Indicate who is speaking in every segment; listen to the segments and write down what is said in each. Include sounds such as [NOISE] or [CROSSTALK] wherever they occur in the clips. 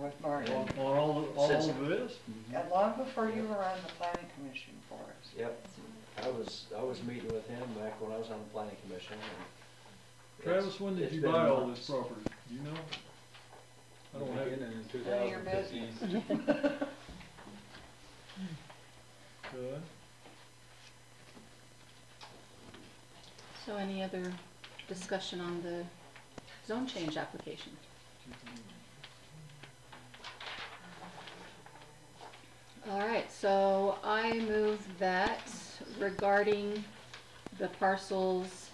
Speaker 1: with Marty,
Speaker 2: On on all, all
Speaker 3: Since-
Speaker 2: of this?
Speaker 1: and long before you were on the planning commission for us.
Speaker 3: Yep, I was, I was meeting with him back when I was on the planning commission and.
Speaker 2: Travis,
Speaker 3: it's-
Speaker 2: when did
Speaker 3: it's
Speaker 2: you
Speaker 3: been
Speaker 2: buy all
Speaker 3: months.
Speaker 2: this property? Do you know? I don't have it.
Speaker 4: Beginning in two
Speaker 1: None of your
Speaker 4: thousand fifteen.
Speaker 2: Good.
Speaker 5: So any other discussion on the zone change application? All right, so I move that regarding the parcels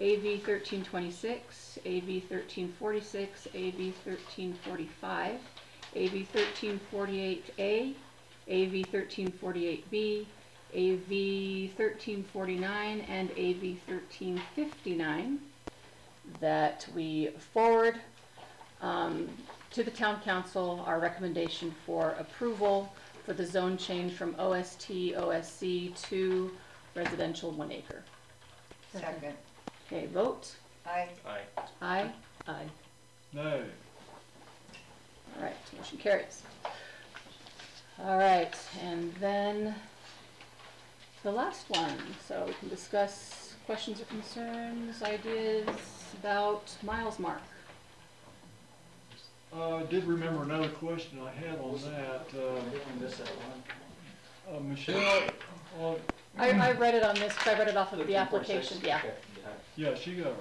Speaker 5: AV thirteen twenty-six, AV thirteen forty-six, AV thirteen forty-five, AV thirteen forty-eight A, AV thirteen forty-eight B, AV thirteen forty-nine, and AV thirteen fifty-nine that we forward um, to the town council our recommendation for approval for the zone change from OST, OSC to residential one acre.
Speaker 1: Second,
Speaker 5: Okay, vote.
Speaker 1: I,
Speaker 5: Aye. Aye.
Speaker 2: No.
Speaker 5: All right, motion carries. All right, and then the last one, so we can discuss questions or concerns, ideas about Miles Mark.
Speaker 2: Uh, I did remember another question I had on that.
Speaker 3: Oh, Did
Speaker 2: Uh,
Speaker 3: we miss that one?
Speaker 2: uh, Michelle, uh,
Speaker 5: I, I read it on this, 'cause I read it off of the
Speaker 3: 13.46?
Speaker 5: application, yeah.
Speaker 3: Okay, all right.
Speaker 2: yeah, she got it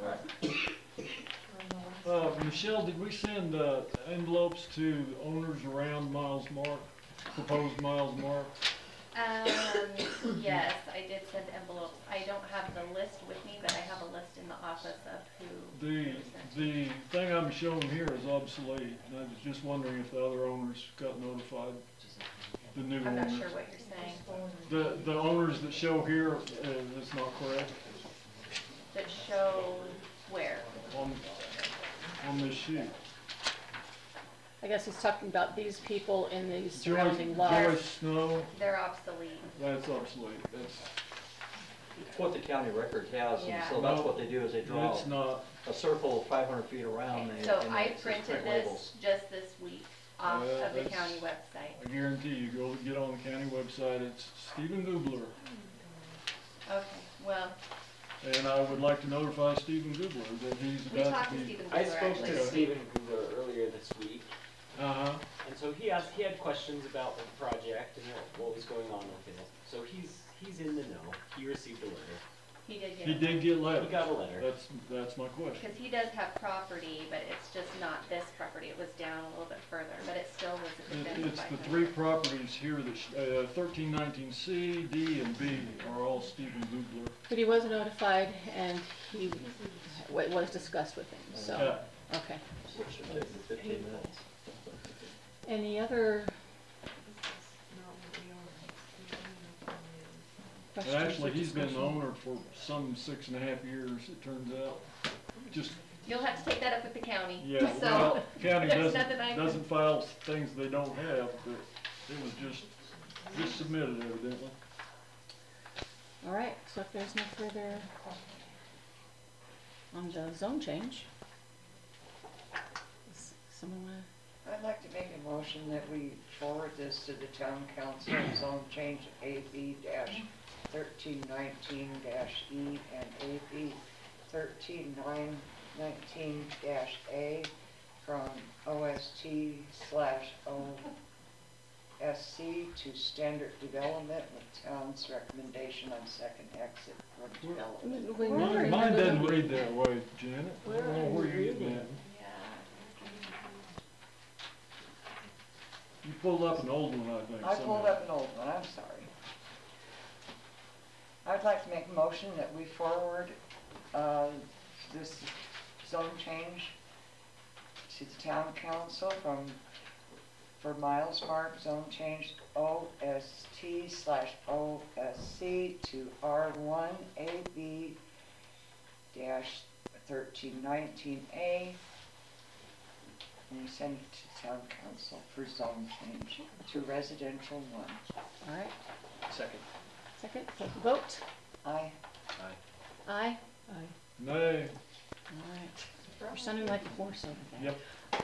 Speaker 2: right. Uh, Michelle, did we send, uh, envelopes to owners around Miles Mark, proposed Miles Mark?
Speaker 3: [COUGHS]
Speaker 6: Um, yes, I did send envelopes. I don't have the list with me, but I have a list in the office of who.
Speaker 2: The,
Speaker 6: who sent.
Speaker 2: the thing I'm showing here is obsolete, and I was just wondering if the other owners got notified, the new
Speaker 6: I'm not
Speaker 2: owners.
Speaker 6: sure what you're saying.
Speaker 2: The, the owners that show here, uh, is not correct,
Speaker 6: That shows where.
Speaker 2: on, on this sheet.
Speaker 5: I guess he's talking about these people in the
Speaker 2: Joyce,
Speaker 5: surrounding
Speaker 2: Joyce
Speaker 5: lots.
Speaker 2: Snow,
Speaker 6: They're obsolete.
Speaker 2: that's obsolete, that's,
Speaker 3: It's What the county record has, and
Speaker 6: Yeah.
Speaker 3: so that's what they do, is they draw
Speaker 2: that's not,
Speaker 3: a circle five hundred feet around.
Speaker 6: Okay,
Speaker 3: and Oh, they-
Speaker 6: So
Speaker 3: and
Speaker 6: I
Speaker 3: they print
Speaker 6: printed
Speaker 3: labels.
Speaker 6: this just this week off
Speaker 2: Well,
Speaker 6: of the
Speaker 2: that's-
Speaker 6: county website.
Speaker 2: I guarantee you, go get on the county website, it's Stephen Gubler.
Speaker 6: Okay, well,
Speaker 2: And I would like to notify Stephen Goodwin that he's
Speaker 6: we
Speaker 2: about
Speaker 6: talked
Speaker 2: to
Speaker 6: to
Speaker 2: be.
Speaker 6: Stephen Bieber
Speaker 7: I
Speaker 6: actually.
Speaker 7: spoke to Stephen Gugler earlier this week,
Speaker 2: Uh-huh,
Speaker 7: and so he asked, he had questions about the project and what, what was going on with it. So he's, he's in the know, he received a letter,
Speaker 6: He did get
Speaker 2: he did get
Speaker 7: he
Speaker 2: letters,
Speaker 7: got a letter.
Speaker 2: that's, that's my question.
Speaker 6: Because he does have property, but it's just not this property, it was down a little bit further, but it still was
Speaker 2: It-
Speaker 6: within the
Speaker 2: It's
Speaker 6: five
Speaker 2: the
Speaker 6: hundred.
Speaker 2: three properties here, that sh- uh, thirteen nineteen C, D, and B are all Stephen Goodler.
Speaker 5: But he was notified and he, it was discussed with him, so,
Speaker 2: Yeah,
Speaker 5: okay.
Speaker 3: It should take me fifteen minutes.
Speaker 5: Any other
Speaker 2: And
Speaker 5: questions? or
Speaker 2: actually, he's been the
Speaker 5: discussion?
Speaker 2: owner for some six and a half years, it turns out. Just,
Speaker 6: You'll have to take that up with the county.
Speaker 2: yeah,
Speaker 6: So,
Speaker 2: well, county
Speaker 6: there's
Speaker 2: doesn't,
Speaker 6: nothing I can-
Speaker 2: doesn't file things they don't have, but it was just, just submitted evidently.
Speaker 5: All right, so if there's no further on the zone change. s- Someone wanna,
Speaker 1: I'd like to make a motion that we forward this to the town council, zone change AB dash thirteen nineteen dash E and AB thirteen nine nineteen dash A from OST slash OSC to standard development with town's recommendation on second exit from development.
Speaker 5: Mm, when
Speaker 2: Mine
Speaker 5: you're-
Speaker 2: mine doesn't read that way, Janet. I don't know where you're getting that.
Speaker 6: Yeah,
Speaker 2: You pulled up an old one, I think.
Speaker 1: I
Speaker 2: somehow.
Speaker 1: pulled up an old one, I'm sorry. I'd like to make a motion that we forward uh, this zone change to the town council from, for Miles Mark, zone change OST slash OSC to R1 AB dash 1319A. And we send it to town council for zone change to residential one.
Speaker 5: All right,
Speaker 3: Second.
Speaker 5: second, take a vote.
Speaker 1: I,
Speaker 5: Aye? Aye.
Speaker 2: Nay,
Speaker 5: All right. You're sounding like a horse over there.
Speaker 2: Yep.